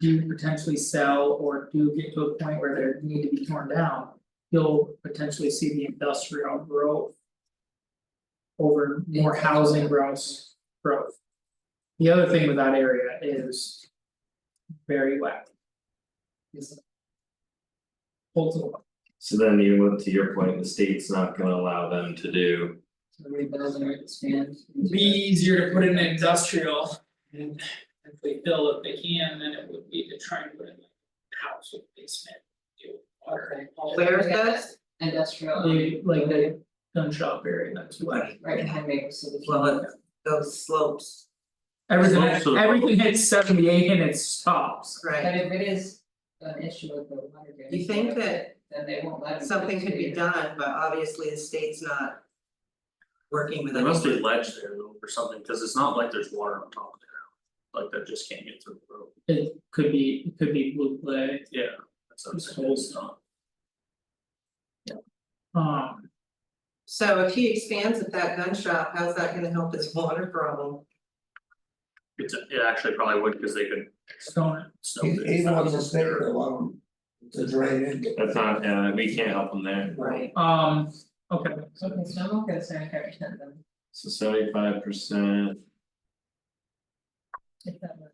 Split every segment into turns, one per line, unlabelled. do potentially sell or do get to a point where they need to be torn down. You'll potentially see the industrial growth. Over more housing growth growth. The other thing with that area is. Very wet. Is. Multiple,
So then even with to your point, the state's not gonna allow them to do,
So rebuild and expand. into
be easier to put in industrial and if they build if they can, then it would be to try and put in like a house with basement. Deal with
that.
water.
Okay.
Where is this?
Industrial.
They- like the gun shop area, that's why.
Right behind Maple City.
Well, it- those slopes,
Slopes of
Everything,
the-
everything hits seventy eight and it stops.
But
right,
if it is an issue with the water. damage,
You think that
Then they won't let them.
something could be done, but obviously the state's not. Working with
There
anyone.
must be a ledge there though or something, cause it's not like there's water on top of the ground, like that just can't get through the road,
It could be, it could be blue clay,
yeah, that's what I'm
It's
saying, it's not.
um,
So if he expands at that gun shop, how's that gonna help his water problem?
It's it actually probably would, cause they could
stone.
snow
He
this
he wants to
fast.
stay there alone to drain into.
that's not, uh, we can't help them there.
Right.
um, okay,
So can snowmobile get seventy-five percent then?
So seventy five percent,
if that were-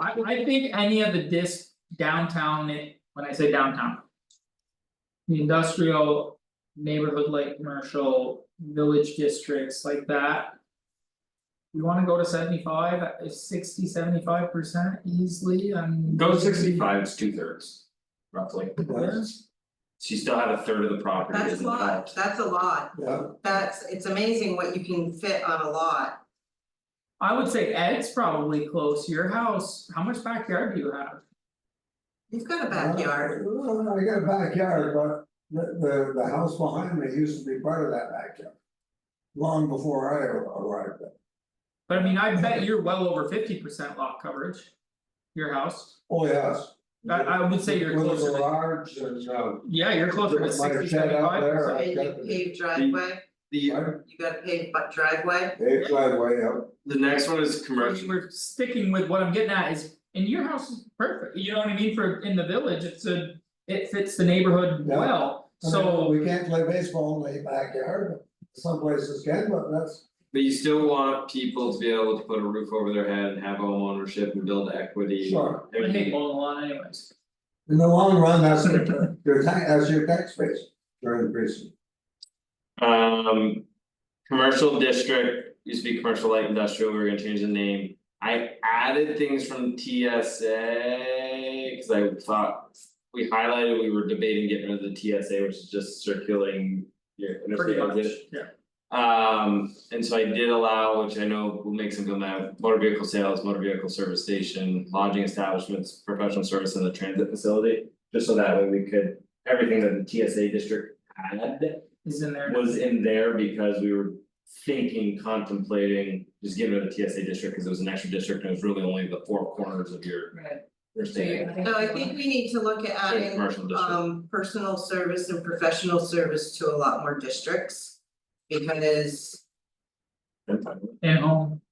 I I think any of the disc downtown, it- when I say downtown. The industrial neighborhood like commercial village districts like that. You wanna go to seventy five, uh, sixty, seventy five percent easily, I mean.
go sixty five, it's two thirds. Roughly,
Yes.
so you still have a third of the property
That's
isn't
a lot,
developed.
that's a lot,
Yeah,
that's, it's amazing what you can fit on a lot.
I would say Ed's probably close, your house, how much backyard do you have?
You've got a backyard,
Well, I got a backyard, but the the the house behind me used to be part of that backyard. Long before I arrived there.
But I mean, I bet you're well over fifty percent lot coverage. Your house,
Oh, yes.
I I would say you're
With a
closer to,
garage and uh.
yeah, you're closer to
with my shed
sixty,
out
seventy-five
there,
so
I've
you
got
need
the-
paved driveway,
The
you got a paved bu- driveway,
They driveway up.
the next one is
We're-
commercial,
We're sticking with what I'm getting at is, and your house is perfect, you know what I mean, for in the village, it's a, it fits the neighborhood
Yeah.
well,
I mean,
so.
We can't play baseball in the backyard, but some places can, but that's.
but you still want people to be able to put a roof over their head and have home ownership and build equity.
Sure.
I
I hate
mean,
mowing the lawn anyways,
In the long run, that's your your tax, that's your tax base, you're increasing.
Um, commercial district, used to be commercial light industrial, we were gonna change the name. I added things from TSA, cause I thought. We highlighted, we were debating getting rid of the TSA, which is just circulating your
pretty
interstate
much,
exit.
yeah.
Um, and so I did allow, which I know will make some people mad, motor vehicle sales, motor vehicle service station, lodging establishments, professional service and the transit facility. Just so that way we could, everything that the TSA district had
Is in there,
was in there because we were thinking, contemplating, just giving it a TSA district, cause it was an extra district and it was really only the four corners of your
Right,
your
so
state.
you, I think.
so I think we need to look at
Like
adding
commercial district,
um personal service and professional service to a lot more districts. Because,
I'm fine with
and home,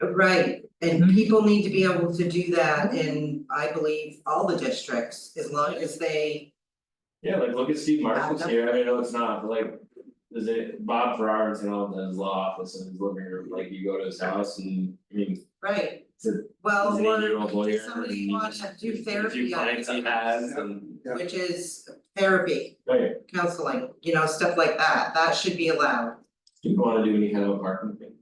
right, and
Mhm.
people need to be able to do that in, I believe, all the districts, as long as they.
it. Yeah, like look at Steve Marshall's
Yeah.
here, I mean, I know it's not, but like. Is it Bob Ferrar's in all his law office and his living room, like you go to his house and, I mean,
Right.
It's a-
Well,
he's an
or
eighty-year-old lawyer.
does somebody wants to do
If you
therapy on
clients he has and, oh,
Yeah.
which is therapy,
right,
counseling, you know, stuff like that, that should be allowed.
people wanna do any kind of apartment thing.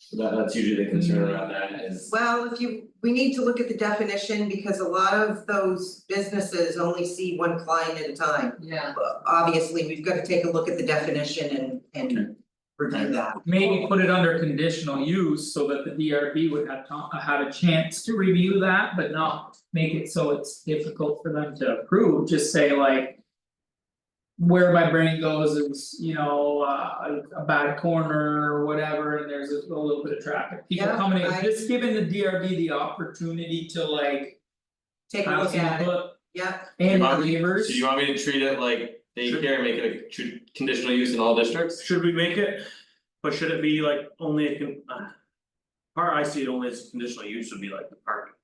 So That that's usually the concern around that is,
Well, if you, we need to look at the definition because a lot of those businesses only see one client at a time.
Yeah,
obviously, we've got to take a look at the definition and and review that.
maybe put it under conditional use so that the DRB would have to, have a chance to review that, but not. Make it so it's difficult for them to approve, just say like. where my brain goes is, you know, uh, a- a bad corner or whatever, and there's a a little bit of traffic, people
Yeah,
coming in,
I-
just giving the DRB the opportunity to like.
Take a look
bounce
at it,
input
yeah,
And
Bobby,
neighbors.
so you want me to treat it like daycare, make it a tr- conditional use in all districts?
Should we make it, but should it be like only a con- uh. Part I see it only as conditional use would be like the parking,